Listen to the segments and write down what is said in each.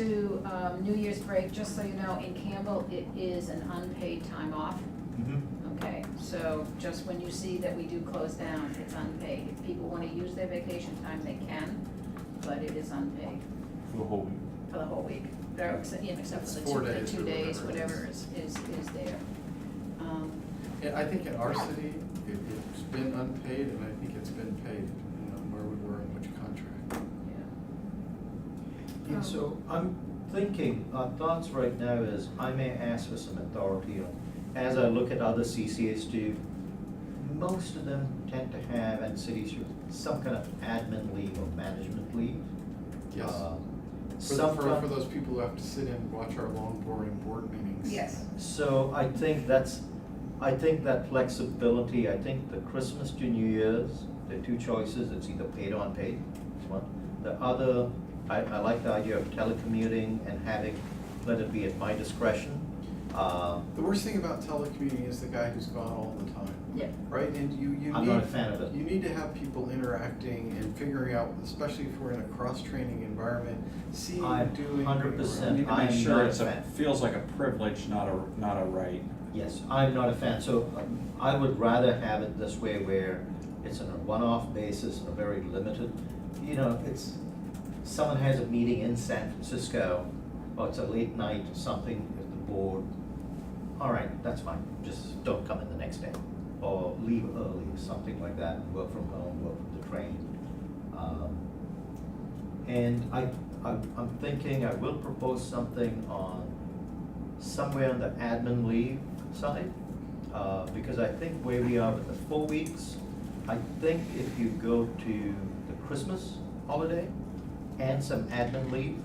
to um, New Year's break, just so you know, in Campbell, it is an unpaid time off, Mhm. okay? So just when you see that we do close down, it's unpaid. If people want to use their vacation time, they can, but it is unpaid For the whole week. for the whole week. There, except, you know, except It's for the four two, the days two or days, whatever it whatever is, is, is there. Um, Yeah, I think in our city, it, it's been unpaid, and I think it's been paid, depending on where we were and which contract. yeah. Yeah, so I'm thinking, our thoughts right now is, I may ask for some authority on, as I look at other CCAs do, most of them tend to have, and cities do, some kind of admin leave or management leave. Yes. Uh, For, the- Some, for, for kind- those people who have to sit in and watch our long boring board meetings. Yes. so I think that's, I think that flexibility, I think the Christmas to New Year's, the two choices, it's either paid or unpaid, one. The other, I, I like the idea of telecommuting and having, let it be at my discretion. Uh, The worst thing about telecommuting is the guy who's gone all the time, Yeah, right? And you, you need. I'm not a fan of it. You need to have people interacting and figuring out, especially if we're in a cross-training environment, seeing, I'm doing. 100% moving Need around. to make I'm sure not it's a a, fan. feels like a privilege, not a, not a right. Yes, I'm not a fan, so um, I would rather have it this way where it's on a one-off basis and a very limited, you know, it's, someone has a meeting in San Francisco, or it's a late night or something with the board, all right, that's fine, just don't come in the next day, or leave early, something like that, work from home, work from the train. Um, And I, I'm, I'm thinking I will propose something on somewhere on the admin leave side, uh, because I think where we are with the four weeks, I think if you go to the Christmas holiday and some admin leave,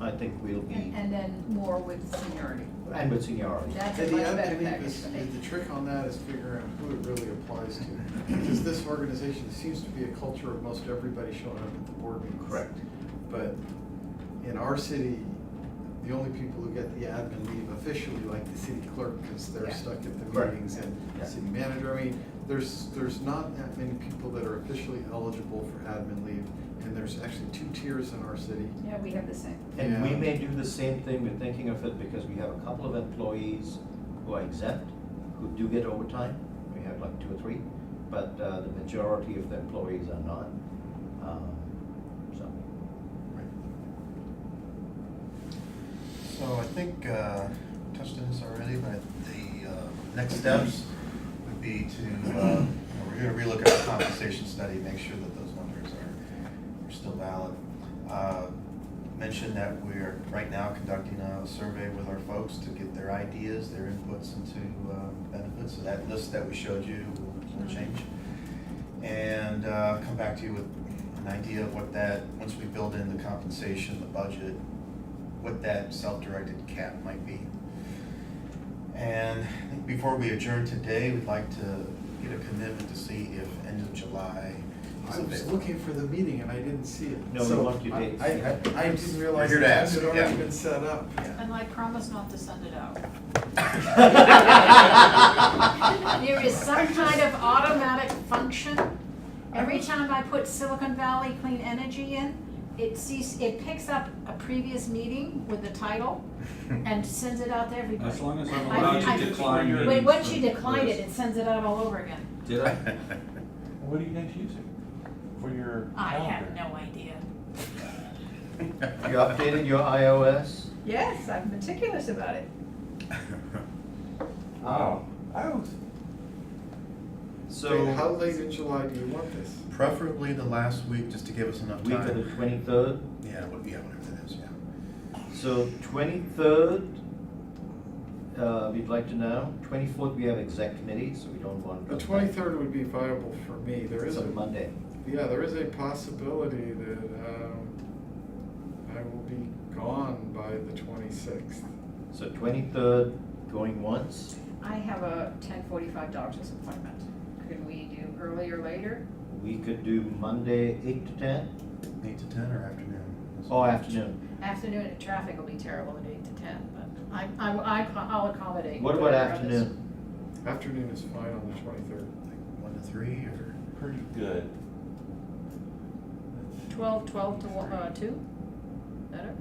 I think we'll be, and, and then more with seniority. and with seniority. That's And a the much other better thing package. is, the trick on that is figuring out who it really applies to. Because this organization seems to be a culture of most everybody showing up at the board meetings. Correct. But in our city, the only people who get the admin leave officially, like the city clerk, because they're Yeah. stuck at the Correct. meetings and Yeah. city manager. I mean, there's, there's not that many people that are officially eligible for admin leave. And there's actually two tiers in our city. Yeah, we have the same. And we Yeah. may do the same thing, we're thinking of it because we have a couple of employees who are exempt, who do get overtime, we have like two or three, but uh, the majority of the employees are not. Um, So, So I think, uh, touched on this already, but the, uh, next steps would be to, uh, you know, we're gonna relook at our compensation study, make sure that those numbers are, are still valid. Uh, Mention that we're right now conducting a survey with our folks to get their ideas, their inputs into, uh, benefits, so that list that we showed you will, will change and uh, come back to you with an idea of what that, once we build in the compensation, the budget, what that self-directed cap might be. And I think before we adjourn today, we'd like to get a commitment to see if end of July is I was available. looking for the meeting and I didn't see it. No, we So want your I- dates. I, I, I didn't realize You're it here to ask, had already yeah. been set up. And I promise not to send it out. Yeah. There is some kind of automatic function. Every time I put Silicon Valley Clean Energy in, it sees, it picks up a previous meeting with the title and sends it out to everybody. As long as I'm I- allowed I- to decline meetings. Wait, once you from- decline it, it sends it out all over again. Did I? What are you guys using for your calendar? I have no idea. you updated your iOS? Yes, I'm meticulous about it. Oh. Wow. I was, So, Wait, How late in July do you want this? Preferably the last week, just to give us enough week of the time. twenty-third, Yeah, what- yeah, whatever that is, yeah. so twenty-third, uh, we'd like to know, twenty-fourth, we have exec committee, so we don't want. The twenty-third would be viable for me. There It's is a, on Monday. yeah, there is a possibility that, um, I will be gone by the twenty-sixth. So twenty-third, going once, I have a ten forty-five doctor's appointment. Could we do earlier, later? we could do Monday, eight to ten, Eight to ten or afternoon? or Oh, afternoon. Afternoon traffic will be terrible at eight to ten, but I, I, I- I'll accommodate. What about whatever others. afternoon? Afternoon is fine on the twenty-third. Like one to three or? pretty good. Twelve, twelve to, one- uh, two? Better?